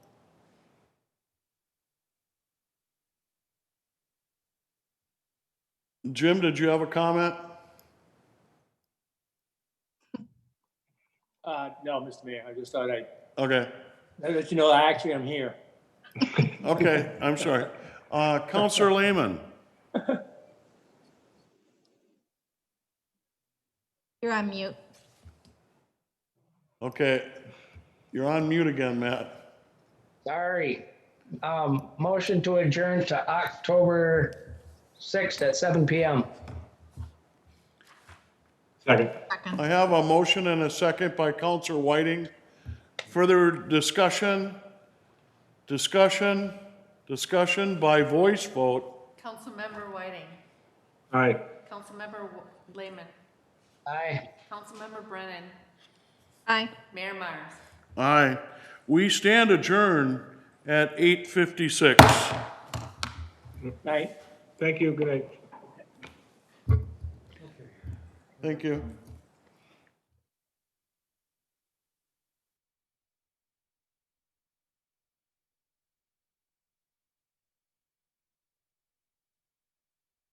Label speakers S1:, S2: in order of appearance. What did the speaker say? S1: Jim, did you have a comment?
S2: Uh, no, Mr. Mayor, I just thought I'd
S1: Okay,
S2: let you know, I actually am here.
S1: okay, I'm sorry. Uh, Counselor Lehman,
S3: You're on mute.
S1: okay, you're on mute again, Matt.
S4: Sorry. Um, motion to adjourn to October sixth at seven PM.
S5: Second.
S3: Second.
S1: I have a motion and a second by Counselor Whiting. Further discussion? Discussion? Discussion by voice vote?
S6: Councilmember Whiting,
S5: Aye.
S6: Councilmember W- Lehman,
S4: Aye.
S6: Councilmember Brennan,
S3: Aye.
S6: Mayor Myers.
S1: Aye. We stand adjourned at 8:56.
S2: Night.
S5: Thank you. Good night.
S1: Thank you.